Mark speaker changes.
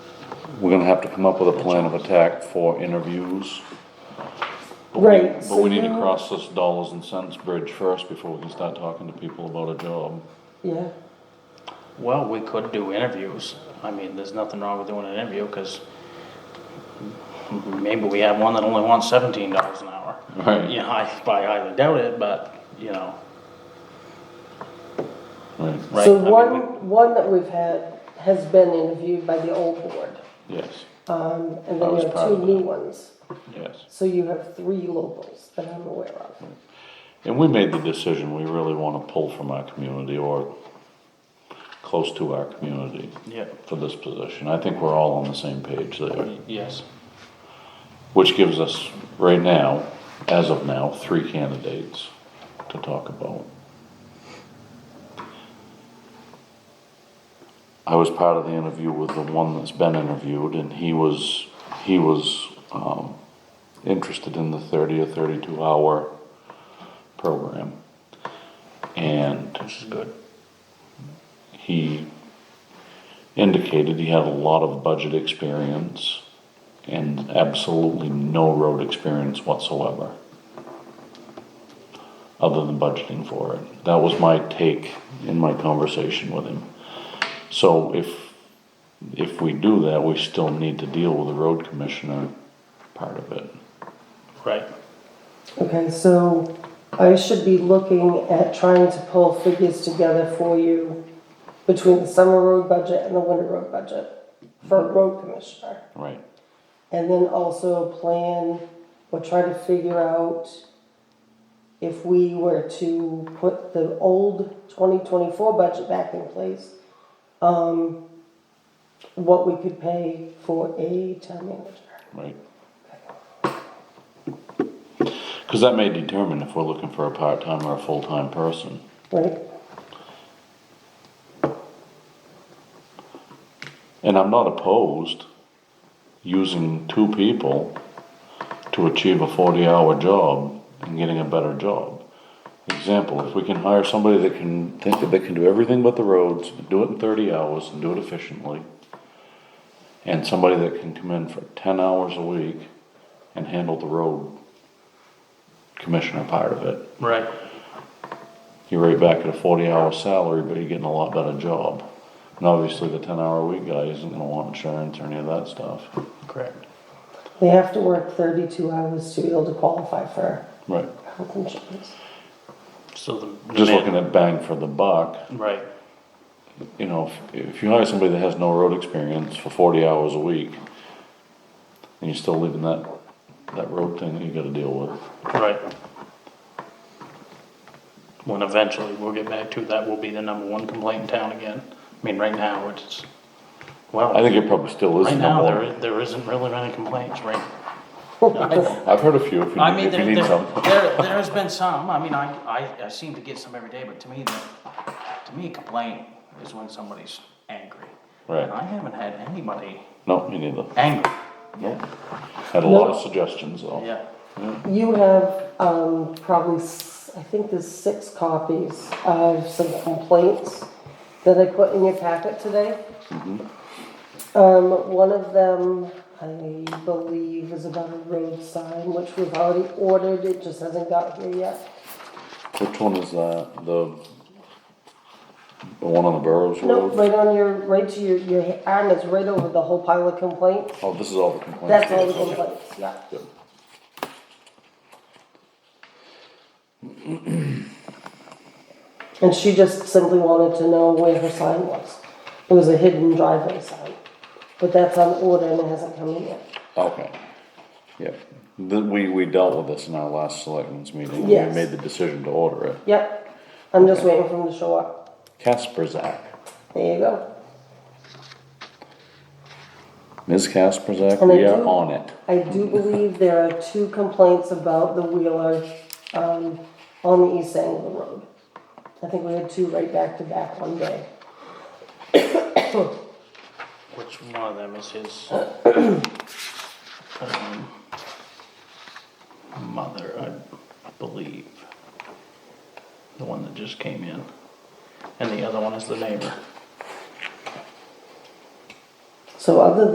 Speaker 1: we're gonna have to come up with a plan of attack for interviews. But we-
Speaker 2: Right,
Speaker 1: But we need to
Speaker 2: so-
Speaker 1: cross this dollars and cents bridge first before we can start talking to people about a job.
Speaker 2: Yeah,
Speaker 3: Well, we could do interviews. I mean, there's nothing wrong with doing an interview, because maybe we have one that only wants seventeen dollars an hour.
Speaker 1: Right.
Speaker 3: You know, I, I highly doubt it, but, you know,
Speaker 1: Right.
Speaker 3: right?
Speaker 2: so
Speaker 3: I mean,
Speaker 2: one, one that we've had has been interviewed by the old board,
Speaker 1: Yes,
Speaker 2: and
Speaker 1: I
Speaker 2: then
Speaker 1: was
Speaker 2: you have
Speaker 1: part
Speaker 2: two
Speaker 1: of that.
Speaker 2: new ones.
Speaker 1: yes.
Speaker 2: So you have three locals that I'm aware of.
Speaker 1: And we made the decision, we really wanna pull from our community or close to our community
Speaker 3: Yeah,
Speaker 1: for this position. I think we're all on the same page there,
Speaker 3: yes,
Speaker 1: which gives us, right now, as of now, three candidates to talk about. I was part of the interview with the one that's been interviewed, and he was, he was, um, interested in the thirty or thirty-two hour program. And
Speaker 3: which is good.
Speaker 1: he indicated he had a lot of budget experience and absolutely no road experience whatsoever, other than budgeting for it. That was my take in my conversation with him. So if, if we do that, we still need to deal with the road commissioner part of it.
Speaker 3: Right,
Speaker 2: Okay, so I should be looking at trying to pull figures together for you between the summer road budget and the winter road budget for a road commissioner.
Speaker 1: Right,
Speaker 2: And then also plan or try to figure out if we were to put the old twenty twenty-four budget back in place, um, what we could pay for a town manager.
Speaker 1: right. Because that may determine if we're looking for a part-time or a full-time person.
Speaker 2: Right,
Speaker 1: And I'm not opposed using two people to achieve a 40 hour job and getting a better job. Example, if we can hire somebody that can think that they can do everything but the roads, do it in 30 hours and do it efficiently, and somebody that can come in for 10 hours a week and handle the road commissioner part of it,
Speaker 3: right,
Speaker 1: you're right back at a 40 hour salary, but you're getting a lot better job. And obviously, the 10 hour a week guy isn't going to want insurance or any of that stuff.
Speaker 3: correct.
Speaker 2: they have to work thirty-two hours to be able to qualify for
Speaker 1: Right.
Speaker 2: health insurance.
Speaker 3: So the. the
Speaker 1: Just
Speaker 3: man-
Speaker 1: looking at bang for the buck,
Speaker 3: Right,
Speaker 1: you know, if, if you hire somebody that has no road experience for 40 hours a week, and you're still leaving that, that road thing that you got to deal with.
Speaker 3: right. When eventually we'll get back to that, will be the number one complaint in town again. I mean, right now, it's, well.
Speaker 1: I think it probably still is
Speaker 3: Right
Speaker 1: the number
Speaker 3: now, there,
Speaker 1: one.
Speaker 3: i- there isn't really many complaints, right?
Speaker 1: I've heard a few if you,
Speaker 3: I mean,
Speaker 1: if you
Speaker 3: there,
Speaker 1: need
Speaker 3: there,
Speaker 1: some.
Speaker 3: there there has been some, I mean, I, I, I seem to get some every day, but to me, the- to me, complaint is when somebody's angry.
Speaker 1: Right.
Speaker 3: And I haven't had anybody
Speaker 1: No, me neither.
Speaker 3: angry,
Speaker 1: No. Had a lot
Speaker 2: No.
Speaker 1: of suggestions though.
Speaker 3: yeah,
Speaker 2: You have, um, probably, s- I think there's six copies of some complaints that I put in your packet today. Um, one of them, I believe, is about a road sign, which we've already ordered, it just hasn't got here yet.
Speaker 1: Which one is that? The, the one on the Burrows
Speaker 2: Nope,
Speaker 1: Road?
Speaker 2: right on your, right to your, your arm is right over the whole pile of complaints,
Speaker 1: Oh, this is all the complaints.
Speaker 2: that's all the
Speaker 1: Okay.
Speaker 2: complaints, yeah.
Speaker 1: Good.
Speaker 2: And she just simply wanted to know where her sign was. It was a hidden driveway sign. But that's on order and it hasn't come in yet.
Speaker 1: Okay. Yep. Th- we, we dealt with this in our last selectmen's meeting. We
Speaker 2: Yes.
Speaker 1: made the decision to order it.
Speaker 2: Yep, I'm just waiting for him to show up.
Speaker 1: Kasperzak.
Speaker 2: There you go.
Speaker 1: Ms. Kasperzak,
Speaker 2: And I
Speaker 1: we are
Speaker 2: do-
Speaker 1: on it.
Speaker 2: I do believe there are two complaints about the wheeler, um, on the east end of the road. I think we had two right back to back one day.
Speaker 3: which one of them is his? um, Mother, I believe, the one that just came in, and the other one is the neighbor.
Speaker 2: So other